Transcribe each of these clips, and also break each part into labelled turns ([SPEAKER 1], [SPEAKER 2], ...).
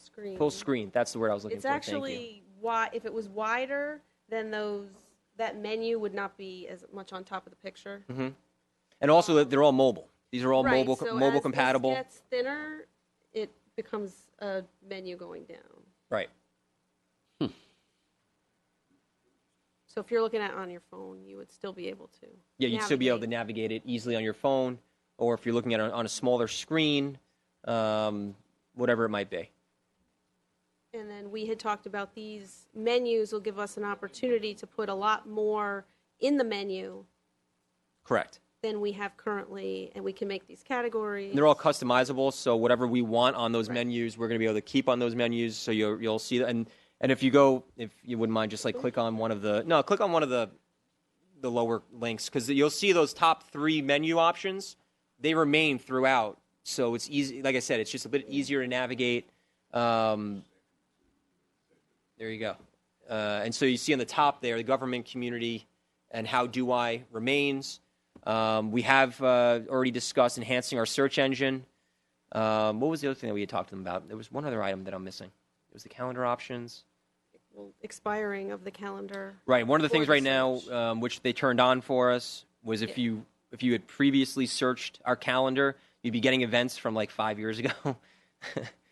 [SPEAKER 1] screen.
[SPEAKER 2] Full screen, that's the word I was looking
[SPEAKER 1] It's
[SPEAKER 2] for, thank you.
[SPEAKER 1] actually wide, if it was wider, then those, that menu would not be as much on top of the picture.
[SPEAKER 2] And also, that they're all mobile. These are all
[SPEAKER 1] Right,
[SPEAKER 2] Mm-hmm. mobile,
[SPEAKER 1] so as
[SPEAKER 2] mobile
[SPEAKER 1] this
[SPEAKER 2] compatible.
[SPEAKER 1] gets thinner, it becomes a menu going down.
[SPEAKER 2] Right.
[SPEAKER 1] So if you're looking at it on your phone, you would still be able to.
[SPEAKER 2] Yeah, you'd still be able to
[SPEAKER 1] navigate.
[SPEAKER 2] navigate it easily on your phone, or if you're looking at it on a smaller screen, um, whatever it might be.
[SPEAKER 1] And then we had talked about these menus will give us an opportunity to put a lot more in the menu
[SPEAKER 2] Correct.
[SPEAKER 1] than we have currently, and we can make these categories.
[SPEAKER 2] And they're all customizable, so whatever we want on those menus, we're going to be able to keep on those menus. So you'll you'll see that. And and if you go, if you wouldn't mind, just like click on one of the no, click on one of the the lower links because you'll see those top three menu options. They remain throughout, so it's easy. Like I said, it's just a bit easier to navigate. Um, there you go. Uh, and so you see on the top there, the government, community, and how do I remains. Um, we have uh, already discussed enhancing our search engine. Um, what was the other thing that we had talked to them about? There was one other item that I'm missing. It was the calendar options.
[SPEAKER 1] Well, Expiring of the calendar.
[SPEAKER 2] Right. One of the
[SPEAKER 1] Or
[SPEAKER 2] things
[SPEAKER 1] the
[SPEAKER 2] right now,
[SPEAKER 1] search.
[SPEAKER 2] um, which they turned on for us, was if you if you had previously searched our calendar, you'd be getting events from like five years ago.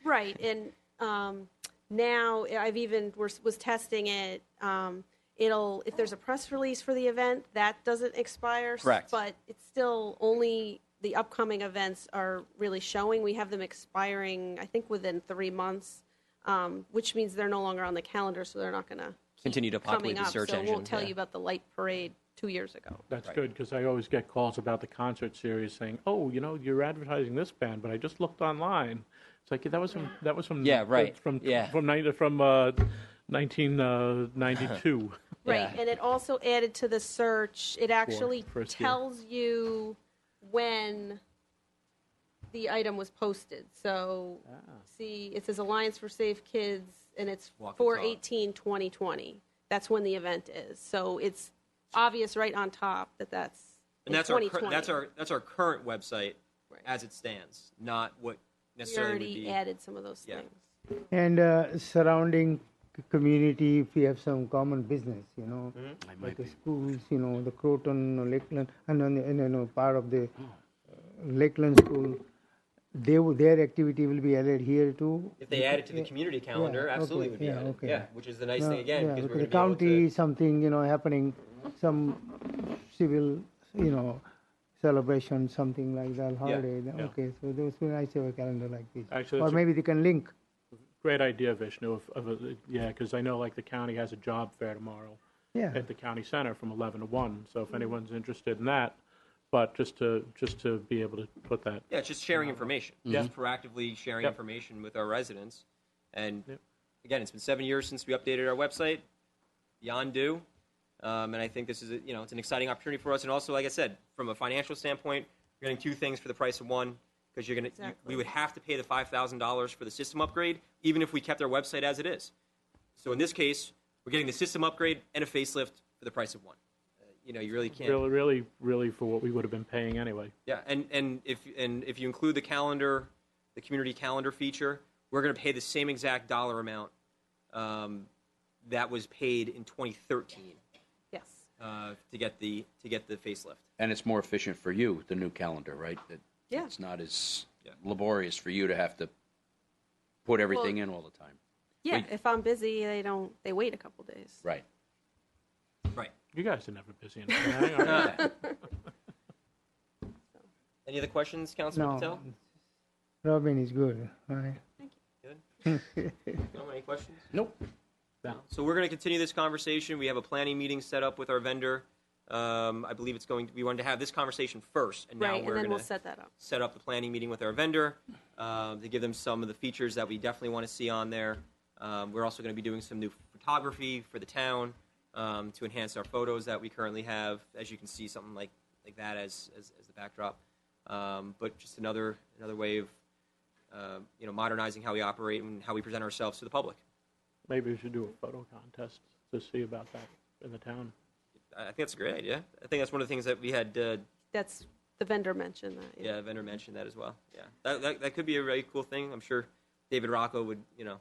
[SPEAKER 1] Right, and um, now I've even we're, was testing it. Um, it'll if there's a press release for the event that doesn't expire. s-
[SPEAKER 2] Correct.
[SPEAKER 1] But it's still only the upcoming events are really showing. We have them expiring, I think, within three months, um, which means they're no longer on the calendar, so they're not going to
[SPEAKER 2] Continue to populate
[SPEAKER 1] coming
[SPEAKER 2] the
[SPEAKER 1] up.
[SPEAKER 2] search
[SPEAKER 1] so
[SPEAKER 2] engine.
[SPEAKER 1] it won't tell
[SPEAKER 2] yeah.
[SPEAKER 1] you about the light parade two years ago.
[SPEAKER 3] That's good, because I always get calls about the concert series saying, oh, you know, you're advertising this band, but I just looked online. It's like, that was from, that was from.
[SPEAKER 2] Yeah, right.
[SPEAKER 3] From,
[SPEAKER 2] Yeah.
[SPEAKER 3] from nine- from, uh, 1992.
[SPEAKER 1] Right,
[SPEAKER 2] Yeah.
[SPEAKER 1] and it also added to the search, it actually
[SPEAKER 3] first year.
[SPEAKER 1] tells you when the item was posted. So, see, it says Alliance for Safe Kids, and it's
[SPEAKER 2] Walk the talk.
[SPEAKER 1] 4/18/2020. That's when the event is. So it's obvious right on top that that's in
[SPEAKER 2] and that's our cur-
[SPEAKER 1] 2020.
[SPEAKER 2] that's our that's our current website
[SPEAKER 1] Right.
[SPEAKER 2] as it stands, not what
[SPEAKER 1] We
[SPEAKER 2] necessarily would
[SPEAKER 1] already
[SPEAKER 2] be.
[SPEAKER 1] added some of those
[SPEAKER 2] Yeah.
[SPEAKER 1] things.
[SPEAKER 4] and uh, surrounding c- community if we have some common business you know
[SPEAKER 2] Hmm?
[SPEAKER 4] like the schools you know the croton or lakeland uh, and then and, you know part of the
[SPEAKER 2] Oh.
[SPEAKER 4] uh, lakeland school they, w- their activity will be added here too
[SPEAKER 2] If they add it to the community calendar,
[SPEAKER 4] okay,
[SPEAKER 2] absolutely would be
[SPEAKER 4] yeah,
[SPEAKER 2] added.
[SPEAKER 4] okay.
[SPEAKER 2] Yeah, which is the nice
[SPEAKER 4] No,
[SPEAKER 2] thing again
[SPEAKER 4] yeah,
[SPEAKER 2] because
[SPEAKER 4] with
[SPEAKER 2] we're
[SPEAKER 4] the
[SPEAKER 2] going to
[SPEAKER 4] county
[SPEAKER 2] be able to.
[SPEAKER 4] something you know happening some civil you know celebration something like that holiday then-
[SPEAKER 3] yeah.
[SPEAKER 4] okay so those would be nice to have a calendar like this
[SPEAKER 3] Actually,
[SPEAKER 4] or
[SPEAKER 3] that's a-
[SPEAKER 4] maybe they can link
[SPEAKER 3] Great idea, Vishnu, of, of, a- yeah, because I know like the county has a job fair tomorrow
[SPEAKER 4] yeah
[SPEAKER 3] at the county center from 11 to 1, so if anyone's interested in that, but just to, just to be able to put that,
[SPEAKER 2] Yeah, it's just sharing information. Just proactively sharing
[SPEAKER 3] Yep.
[SPEAKER 2] information with our residents, and
[SPEAKER 3] Yep.
[SPEAKER 2] again, it's been seven years since we updated our website. Beyond due, um, and I think this is a, you know it's an exciting opportunity for us. And also, like I said, from a financial standpoint, you're getting two things for the price of one because you're gonna you, we
[SPEAKER 1] Exactly.
[SPEAKER 2] would have to pay the five thousand dollars for the system upgrade, even if we kept our website as it is. So in this case, we're getting the system upgrade and a facelift for the price of one. Uh, you know, you really can't.
[SPEAKER 3] really, really, really for what we would have been paying anyway.
[SPEAKER 2] Yeah, and, and if and if you include the calendar, the community calendar feature, we're going to pay the same exact dollar amount um, that was paid in 2013
[SPEAKER 1] Yes.
[SPEAKER 2] uh, to get the to get the facelift.
[SPEAKER 5] And it's more efficient for you, the new calendar, right? That
[SPEAKER 1] Yeah.
[SPEAKER 5] It's not as
[SPEAKER 2] Yeah.
[SPEAKER 5] laborious for you to have to put everything in all the time.
[SPEAKER 1] Yeah,
[SPEAKER 5] Wait.
[SPEAKER 1] if I'm busy, they don't, they wait a couple days.
[SPEAKER 5] Right.
[SPEAKER 2] Right.
[SPEAKER 3] You guys are never busy enough. Hang on.
[SPEAKER 2] Any other questions, Councilman
[SPEAKER 4] no
[SPEAKER 2] Patel?
[SPEAKER 4] robin is good right
[SPEAKER 2] No, any questions?
[SPEAKER 3] Nope.
[SPEAKER 2] So we're going to continue this conversation. We have a planning meeting set up with our vendor. Um, I believe it's going. we wanted to have this conversation first, and now
[SPEAKER 1] Right, and
[SPEAKER 2] we're
[SPEAKER 1] then
[SPEAKER 2] going
[SPEAKER 1] we'll
[SPEAKER 2] to
[SPEAKER 1] set that up.
[SPEAKER 2] set up the planning meeting with our vendor um, to give them some of the features that we definitely want to see on there. Um, we're also going to be doing some new photography for the town um, to enhance our photos that we currently have. As you can see, something like, like that as, as, as the backdrop. Um, but just another another way of uh, you know modernizing how we operate and how we present ourselves to the public.
[SPEAKER 3] Maybe we should do a photo contest to see about that in the town.
[SPEAKER 2] I I think that's a great idea. I think that's one of the things that we had uh,
[SPEAKER 1] That's, the vendor mentioned that.
[SPEAKER 2] yeah vendor mentioned that as well. Yeah, that, that, that could be a really cool thing. I'm sure David Rocco would you know